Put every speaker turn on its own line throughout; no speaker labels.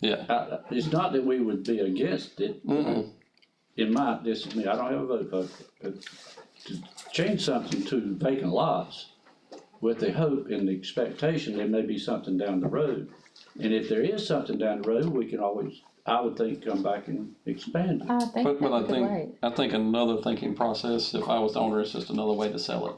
yeah,
I- Uh, It's not that we would be against it.
Mm-hmm.
In my, this is me, I don't have a vote for it, but to change something to vacant lots with the hope and the expectation there may be something down the road. And if there is something down the road, we can always, I would think, come back and expand it.
I think
but, but I
that's right.
think, I think another thinking process, if I was the owner, it's just another way to sell it.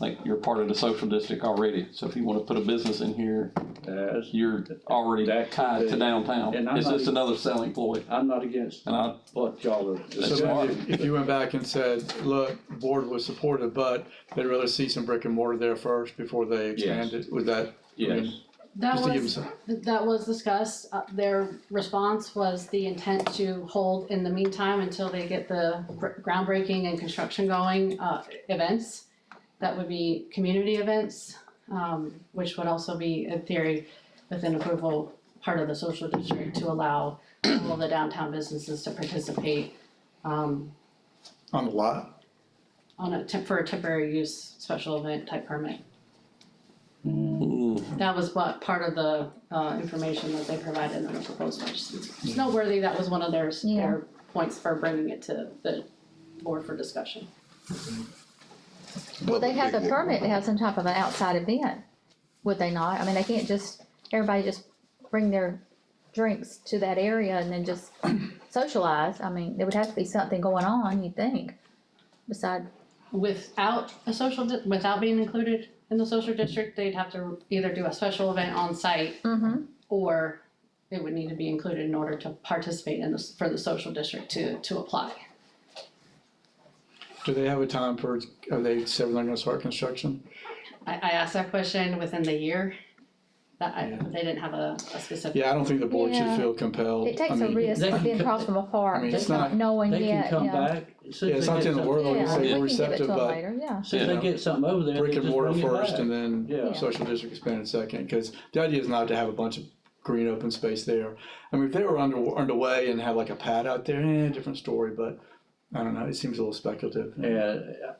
Like, you're part of the social district already, so if you wanna put a business in here,
As you-
you're already
That-
tied to downtown,
and I'm
it's
not
just
even-
another selling ploy,
I'm not against
and I,
what y'all are
That's
So
hard.
discussing.
if, if you went back and said, look, board was supportive, but they'd rather see some brick and mortar there first before they expand it, would that?
Yes,
That
Just to give
was,
them
th- that was discussed, uh, their response was the intent to hold in the meantime until they get the gr- groundbreaking and construction going, uh, events. That would be community events, um, which would also be in theory within approval, part of the social district to allow all the downtown businesses to participate. Um,
On the lot?
on a, temp- for a temporary use, special event type permit.
mm,
That was what, part of the uh information that they provided in the proposed legislation. It's noteworthy, that was one of their their points for bringing it to the board for discussion.
Well, they have the permit to have some type of an outside event, would they not? I mean, they can't just, everybody just bring their drinks to that area and then just socialize. I mean, there would have to be something going on, you'd think, beside,
Without a social, di- without being included in the social district, they'd have to either do a special event on site
Mhm.
or it would need to be included in order to participate in this, for the social district to to apply.
Do they have a time for, are they, said they're gonna start construction?
I I asked that question within the year, that I,
Yeah.
they didn't have a a specific.
Yeah, I don't think the board should
Yeah.
feel compelled.
it takes
I
a
mean,
risk
they
of
can
being
co-
across from a
I
park,
mean,
just
it's not-
not knowing
they
yet,
can come
yeah.
back. As soon
Yeah,
as
it's
they
not
get
in the
something-
world,
Yeah,
we
we
say we're
can give it to
receptive,
them
but
later, yeah.
As soon as
Yeah.
they get something over there. they
brick and
just
mortar
bring it
first
back.
and then
Yeah.
social district expanded second, cause the idea is not to have a bunch of green open space there. I mean, if they were under, underway and had like a pad out there, eh, different story, but I don't know, it seems a little speculative.
And uh,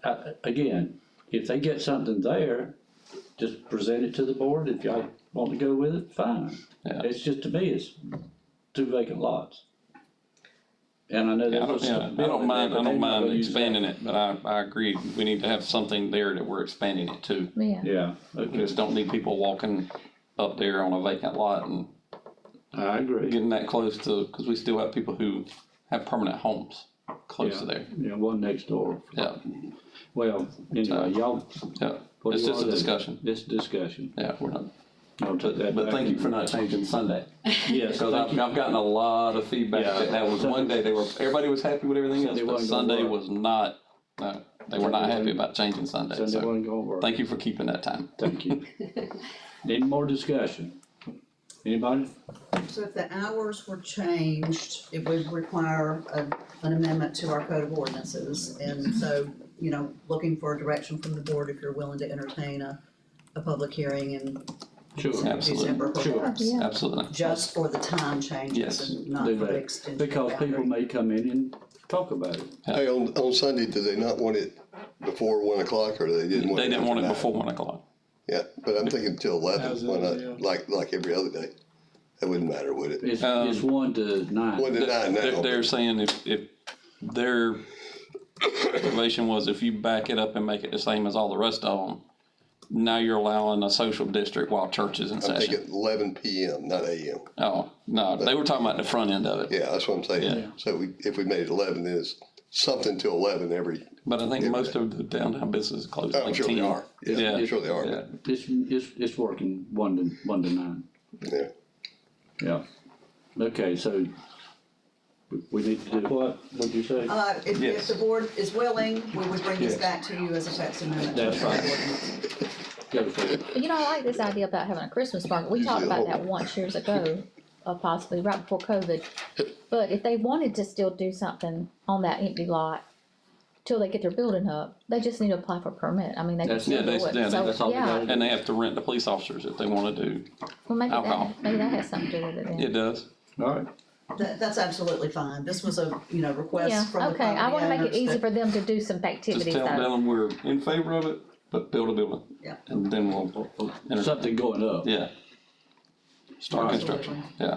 uh, again, if they get something there, just present it to the board. If y'all want to go with it, fine.
Yeah.
It's just to me, it's two vacant lots. And I know
yeah, I
there's.
don't,
a
yeah, I don't
building there,
mind,
but
I
they're
don't
not
mind
gonna use that.
expanding it, but I, I agree, we need to have something there that we're expanding it to.
Yeah,
Yeah,
We
okay,
just don't need people walking up there on a vacant lot and
I agree.
getting that close to, because we still have people who have permanent homes close to
Yeah.
there.
Yeah, one next door.
Yeah,
Well, anyway, y'all,
yeah.
What do
It's
you
just a
wanna do?
discussion.
this discussion,
Yeah, we're not,
I'll take that back.
but thank you for not changing Sunday.
Yes,
Because I've,
thank you.
I've gotten a lot of feedback
Yeah.
that that was one day they were, everybody was happy with everything else,
Sunday
but
wasn't gonna
Sunday
work.
was not, no, they were not happy about changing Sunday.
Sunday
So
wasn't gonna work.
thank you for keeping that time.
Thank you. Any more discussion? Anybody?
So if the hours were changed, it would require a, an amendment to our code of ordinances. And so, you know, looking for a direction from the board if you're willing to entertain a, a public hearing in December
Absolutely.
Sure.
perhaps.
Yeah.
Absolutely.
Just for the time
Yes.
changes and not
Do
for the
that.
extension. of
Because people
boundary.
may come in and talk about it.
Hey, on, on Sunday, do they not want it before one o'clock or they didn't want it?
They didn't want it
after
before one o'clock.
nine? Yeah, but I'm thinking till
As of,
eleven, why
yeah.
not, like, like every other day? That wouldn't matter, would it?
It's, it's one to
One
nine.
to nine
They're,
now.
they're saying if, if their motivation was if you back it up and make it the same as all the rest of them, now you're allowing a social district while church is in
I'm
session.
thinking eleven PM, not AM.
Oh, no, they were talking about the front end of it.
Yeah, that's what I'm saying. So we, if we made it eleven, then it's something till eleven every,
But I think most of the downtown businesses close at
Oh, I'm
like
sure
ten.
they are. Yeah,
Yeah.
I'm sure they
Yeah.
are.
It's, it's, it's working one to, one to nine.
Yeah.
Yeah. Okay, so we- we need to do what? What'd you say?
Uh, if, if
Yes.
the board is willing, we would bring this
Yes.
back to you as a text amendment.
That's fine. Go for it.
But you know, I like this idea about having a Christmas market, we
Usually
talked
the
about
whole-
that once years ago, uh, possibly right before COVID. But if they wanted to still do something on that empty lot, till they get their building up, they just need to apply for a permit, I mean, they can
That's-
still
yeah,
do
they-
it, so,
yeah,
yeah.
that's
all they gotta do.
And they have to rent the police officers if they want to do.
Well, maybe
Alcohol.
that, maybe that has something to do with it then.
It does.
All right.
That, that's absolutely fine. This was a, you know,
Yeah,
request from the
okay, I wanna make it
property owners
easy
that-
for them to do some
Just
activities
tell
though.
them we're in favor of it, but build a building.
Yeah.
And then we'll,
Something going up.
yeah. Start
Alright.
construction. Yeah.